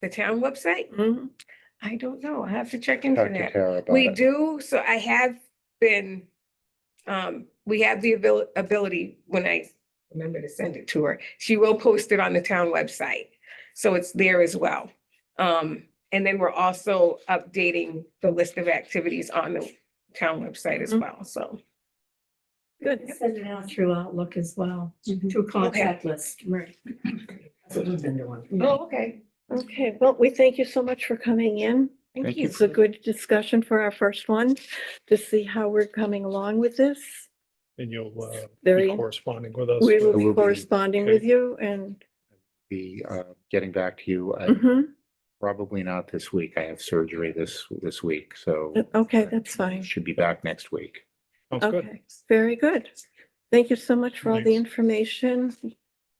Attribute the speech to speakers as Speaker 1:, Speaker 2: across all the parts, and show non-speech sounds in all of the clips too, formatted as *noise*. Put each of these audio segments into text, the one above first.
Speaker 1: The town website?
Speaker 2: Mhm.
Speaker 1: I don't know. I have to check into
Speaker 3: Talk to
Speaker 1: that.
Speaker 3: Tara about
Speaker 1: We
Speaker 3: it.
Speaker 1: do, so I have been, um, we have the abil- ability, when I remember to send it to her, she will post it on the town website. So it's there as well. Um, and then we're also updating the list of activities on the town website as
Speaker 2: Mhm.
Speaker 1: well, so.
Speaker 2: Good.
Speaker 4: Send it out through Outlook as well, through contact list, right.
Speaker 1: Oh, okay.
Speaker 2: Okay, well, we thank you so much for coming in.
Speaker 1: Thank
Speaker 5: Thank
Speaker 1: you.
Speaker 2: It's a good discussion for our first one to see how we're coming along with this.
Speaker 5: And you'll uh,
Speaker 2: Very-
Speaker 5: be corresponding with us.
Speaker 2: We
Speaker 5: with-
Speaker 2: will
Speaker 3: will
Speaker 2: be
Speaker 3: be-
Speaker 2: corresponding with
Speaker 5: Okay.
Speaker 2: you and,
Speaker 3: Be, uh, getting back to you, I
Speaker 2: Mhm.
Speaker 3: probably not this week. I have surgery this, this week, so.
Speaker 2: mm-hmm. okay, that's fine.
Speaker 3: Should be back next week.
Speaker 5: Sounds good.
Speaker 2: Okay, very good. Thank you so much for all the
Speaker 5: Thanks.
Speaker 2: information.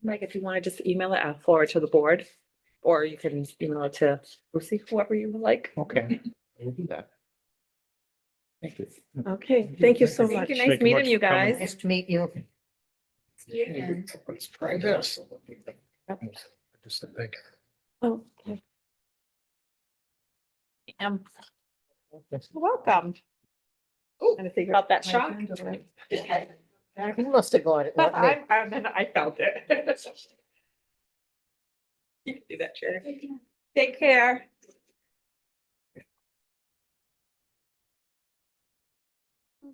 Speaker 6: Mike, if you want to just email it, I'll forward to the board, or you can email it to Lucy, whoever you would like.
Speaker 3: Okay. We'll do that. Thank you.
Speaker 2: Okay, thank you so
Speaker 6: Thank
Speaker 2: much.
Speaker 6: you.
Speaker 5: Thank
Speaker 6: Nice
Speaker 5: you much
Speaker 6: meeting you
Speaker 5: for coming.
Speaker 6: guys.
Speaker 4: to meet you.
Speaker 5: Let's try this. Just to think.
Speaker 2: Okay.
Speaker 6: Um, Welcome. Trying to figure out that shock.
Speaker 4: You must have got it.
Speaker 6: But I, I, then I felt it. *laughs* You can do that, Chair. Take care.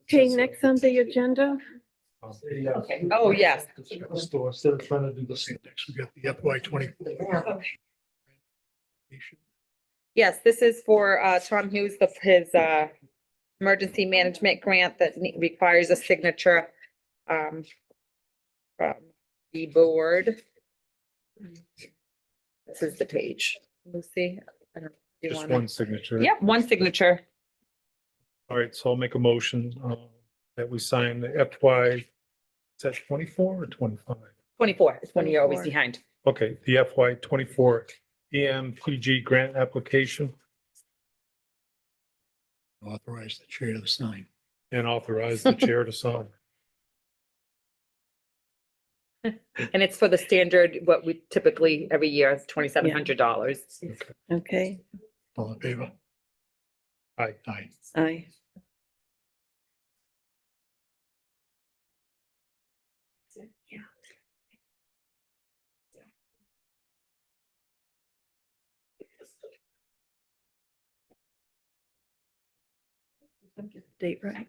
Speaker 2: Okay, next on the agenda,
Speaker 5: Um,
Speaker 6: Okay. Oh, yes.
Speaker 5: Store, instead of trying to do the same next, we got the FY twenty.
Speaker 6: Yes, this is for uh, Tom Hughes, the- his uh, emergency management grant that ne- requires a signature um, from the board. This is the page. Lucy? I don't- do you
Speaker 5: Just
Speaker 6: wanna-
Speaker 5: one signature.
Speaker 6: Yep, one signature.
Speaker 5: All right, so I'll make a motion uh, that we sign the FY, is that twenty-four or twenty-five?
Speaker 6: 24 is when you're always
Speaker 2: 24.
Speaker 6: behind.
Speaker 5: Okay, the FY twenty-four E EMPG grant application
Speaker 7: Authorize the chair to sign.
Speaker 5: and authorize
Speaker 6: *laughs*
Speaker 5: the chair to sign.
Speaker 6: And it's for the standard, what we typically every year is $2,700.
Speaker 2: okay,
Speaker 7: All in favor?
Speaker 5: Aye.
Speaker 7: Aye.
Speaker 2: aye. Date right.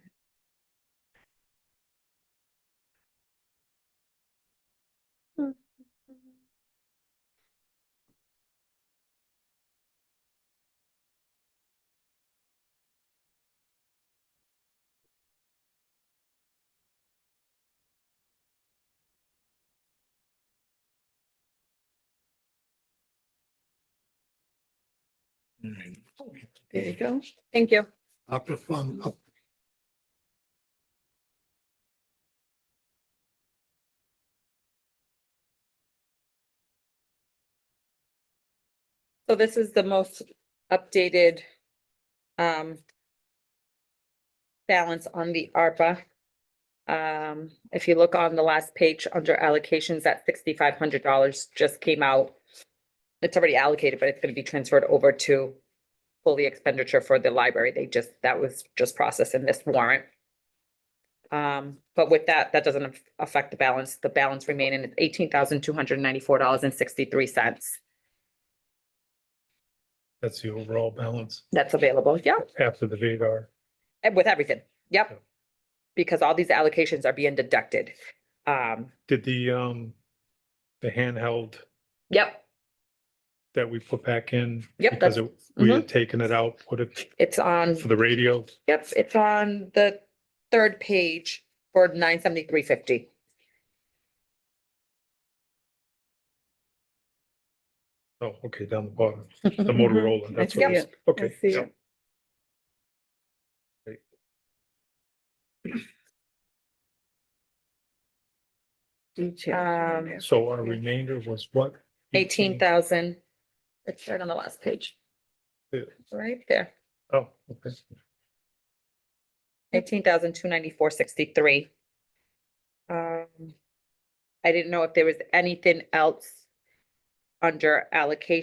Speaker 7: All right.
Speaker 2: There you go.
Speaker 6: Thank you.
Speaker 7: Opera fund, up-
Speaker 6: So this is the most updated um balance on the ARPA. Um, if you look on the last page under allocations, that sixty-five hundred dollars just came out. It's already allocated, but it's gonna be transferred over to fully expenditure for the library. They just, that was just processed in this warrant. Um, but with that, that doesn't af- affect the balance. The balance remaining is eighteen thousand two hundred ninety-four dollars and sixty-three cents.
Speaker 5: That's the overall balance
Speaker 6: That's available, yeah.
Speaker 5: after the VEDAR.
Speaker 6: Eh, With everything,
Speaker 5: Yeah.
Speaker 6: yep. Because all these allocations are being deducted. Um,
Speaker 5: Did the, um, the handheld
Speaker 6: yep,
Speaker 5: that we put back in?
Speaker 6: Yep,
Speaker 5: Because
Speaker 6: that's-
Speaker 5: it- we had taken it out, put it
Speaker 6: Mm-hmm. it's on,
Speaker 5: for the radio.
Speaker 6: yep, it's on the third page for nine seventy-three fifty.
Speaker 5: Oh, okay, down the bottom, the
Speaker 6: Mm-hmm.
Speaker 5: Motorola, that's what it
Speaker 2: see
Speaker 5: is. Okay.
Speaker 2: see
Speaker 5: yeah.
Speaker 2: it. Detail.
Speaker 6: Um,
Speaker 5: So our remainder was what?
Speaker 6: Eighteen thousand, it's right on the last page.
Speaker 5: Yeah.
Speaker 6: Right there,
Speaker 5: Oh, okay.
Speaker 6: eighteen thousand two ninety-four sixty-three. Um, I didn't know if there was anything else under allocation.